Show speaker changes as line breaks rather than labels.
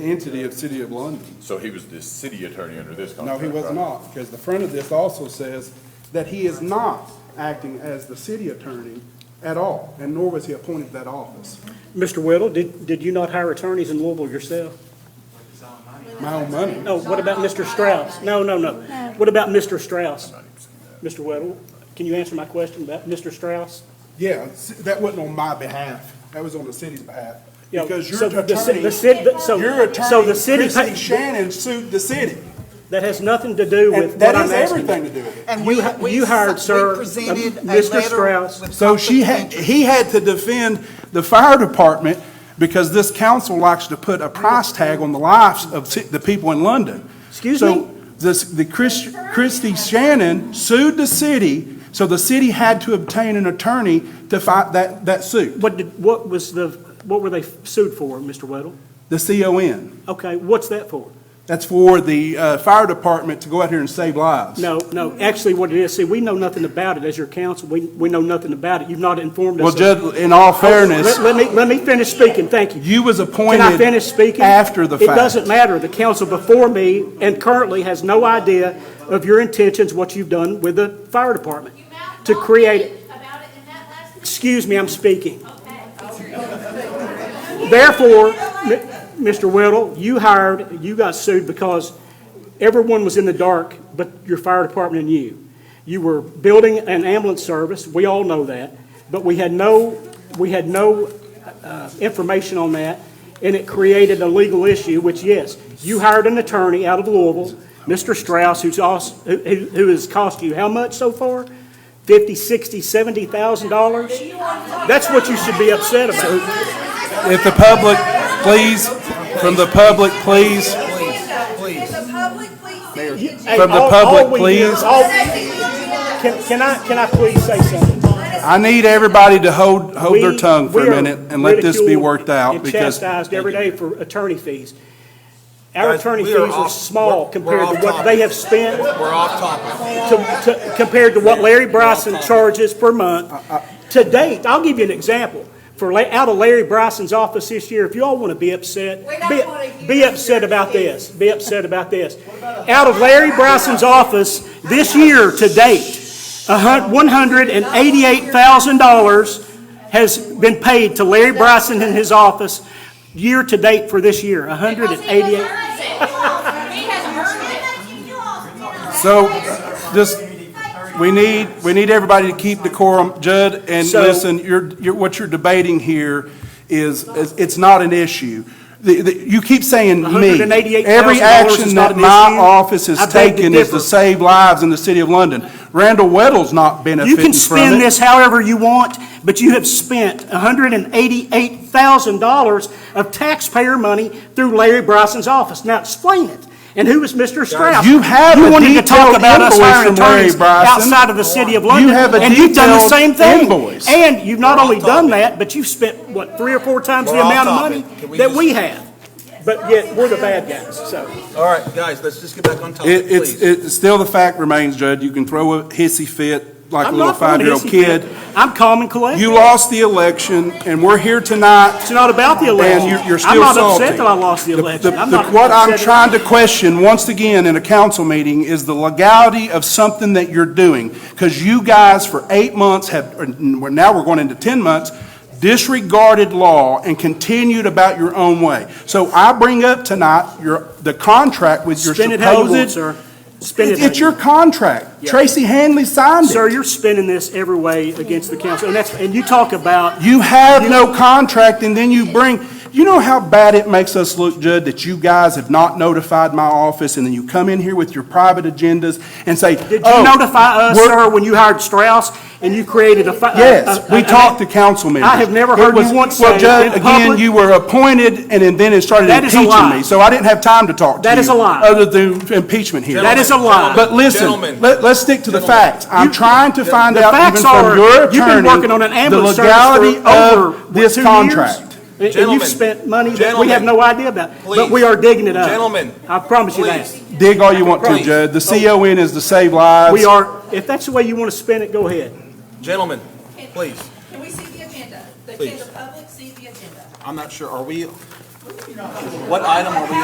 entity of City of London.
So he was the city attorney under this
No,
contract?
he was
right?
not, because the front of this also says that he is not acting as the city attorney at all, and nor was he appointed that office.
Mr. Whittle, did, did you not hire attorneys in Louisville yourself?
My own money.
No, what about Mr. Strauss? No, no, no. What about Mr. Strauss? Mr. Whittle, can you answer my question about Mr. Strauss?
Yeah, s- that wasn't on my behalf. That was on the city's behalf.
Yeah,
Because your
so the ci-
attorney,
the city- the- so-
your
So
attorney,
the city,
Chrissy
pa-
Shannon sued the city.
that has nothing to do with
And
what
that
I'm
has
asking.
everything to do with it.
And
You
we,
ha-
we
you hired,
s-
sir,
we presented
uh,
a
Mr.
letter
Strauss.
with
So she
conflict of
had,
interest.
he had to defend the fire department because this council likes to put a price tag on the lives of ci- the people in London.
Excuse me?
So this, the Chris, Christie Shannon sued the city, so the city had to obtain an attorney to fight that, that suit,
What did, what was the, what were they sued for, Mr. Whittle?
the CON.
Okay, what's that for?
That's for the, uh, fire department to go out here and save lives.
No, no, actually what it is, see, we know nothing about it as your council, we, we know nothing about it, you've not informed us.
Well,
of- Oh,
Judge, in all fairness,
Let, let me, let me finish speaking, thank you.
you was appointed
Can I finish speaking?
after the fact.
It doesn't matter. The council before me and currently has no idea of your intentions, what you've done with the fire department. To create,
About it in that last
excuse me, I'm speaking.
Okay.
Therefore, M- Mr. Whittle, you hired, you got sued because everyone was in the dark but your fire department and you. You were building an ambulance service, we all know that, but we had no, we had no uh, information on that, and it created a legal issue, which, yes, you hired an attorney out of Louisville, Mr. Strauss, who's also, who, who who has cost you how much so far? Fifty, sixty, seventy thousand dollars? That's what you should be upset about.
If the public, please, from the public, please,
Please.
If the public please see the agenda,
Hey,
From the
all- all
public,
we did-
please.
all-
see the agenda.
Can, can I, can I please say something?
I need everybody to hold, hold their
We-
tongue for
we
a
are
minute and let this be
ridiculed
worked out
And
because
chastised every day for attorney fees. Our
Guys,
attorney
we
fees
are
are
off-
small
we're- we're
compared
off
to what they
topic.
have spent,
We're off topic.
to, to, compared to what Larry Bryson charges per month. To date, I'll give you an example. For, la- out of Larry Bryson's office this year, if you all want to be upset,
We don't
be-
wanna hear
be
your
upset about
fees.
this, be upset about this. Out of Larry Bryson's office this year to date, a hun, one hundred and eighty-eight thousand dollars has been paid to Larry Bryson in his office year to date for this year, a hundred and eighty-eight.
He has earned it.
So, just, we need, we need everybody to keep decorum. Judd, and
So-
listen, you're, you're, what you're debating here is, is- it's not an issue. The, the, you keep saying me.
$188,000
Every
is
action
not
that
an
my
issue?
office has
I beg to
taken is
differ.
to save lives in the city of London. Randall Weddle's not
You
benefiting from it.
can spend this however you want, but you have spent $188,000 of taxpayer money through Larry Bryson's office. Now explain it. And who is Mr. Strauss?
You have a
wanted to talk
detailed
about us
invoice
hiring
from Larry
attorneys
Bryson.
Outside of the city of London.
have a
And you've done the
detailed
same thing.
invoice.
And you've not only done that, but you've spent, what, three or four times the
We're off
amount of
topic. Can
money
we
that
just-
we have. But yet, we're the bad guys, so.
All right, guys, let's just get back on topic,
It, it's,
please.
it's, still the fact remains, Judd, you can throw a hissy fit like a
I'm
little
not going to
five-year-old
hissy fit.
kid.
I'm calm and collected.
You lost the election, and we're here tonight.
It's not about the election.
And you're- you're still
I'm not
salty.
upset that I lost the
The-
election.
the-
I'm
the-
not
What I'm
upset-
trying to question, once again, in a council meeting, is the legality of something that you're doing. Because you guys, for eight months, have, or n- we're- now we're going into 10 months, disregarded law and continued about your own way. So I bring up tonight your, the contract with your
Spin it how you want,
supposed.
sir. Spin it
It's-
how
It's
you
your
want.
contract. Tracy Hanley signed it.
Sir, you're spinning this every way against the council, and that's, and you talk about,
You have no contract, and then you bring, you know how bad it makes us look, Judd, that you guys have not notified my office, and then you come in here with your private agendas and say,
did you
"Oh,
notify us,
we're-"
sir, when you hired Strauss and you created a? fi- a-
Yes,
a-
we
a-
talked to council members.
I Uh, have never
It
heard you
was-
once
Well,
say
Judd,
in public-
again, you were appointed, and then- then it started
That is a
impeaching
lie.
me, so I didn't have time to talk to you.
That is a lie.
Other than impeachment here.
That is a lie.
But
Gentlemen.
listen, let, let's stick to the facts. I'm
You-
trying to find
the
out even
facts
from
are,
your
you've been
attorney,
working on an ambulance service for
The
over,
legality
what,
of this
two years?
contract.
And and you've
Gentlemen.
spent money that we have
Gentlemen.
no idea about, but we
Please.
are digging it up.
Gentlemen.
I promise you that.
Please.
Dig all you want to,
Please.
Judd. The CON is to save lives.
We are, if that's the way you want to spin it, go ahead.
Gentlemen, please.
Can we see the agenda? The-
Please.
Can the public see the agenda?
I'm not sure, are we, What item are we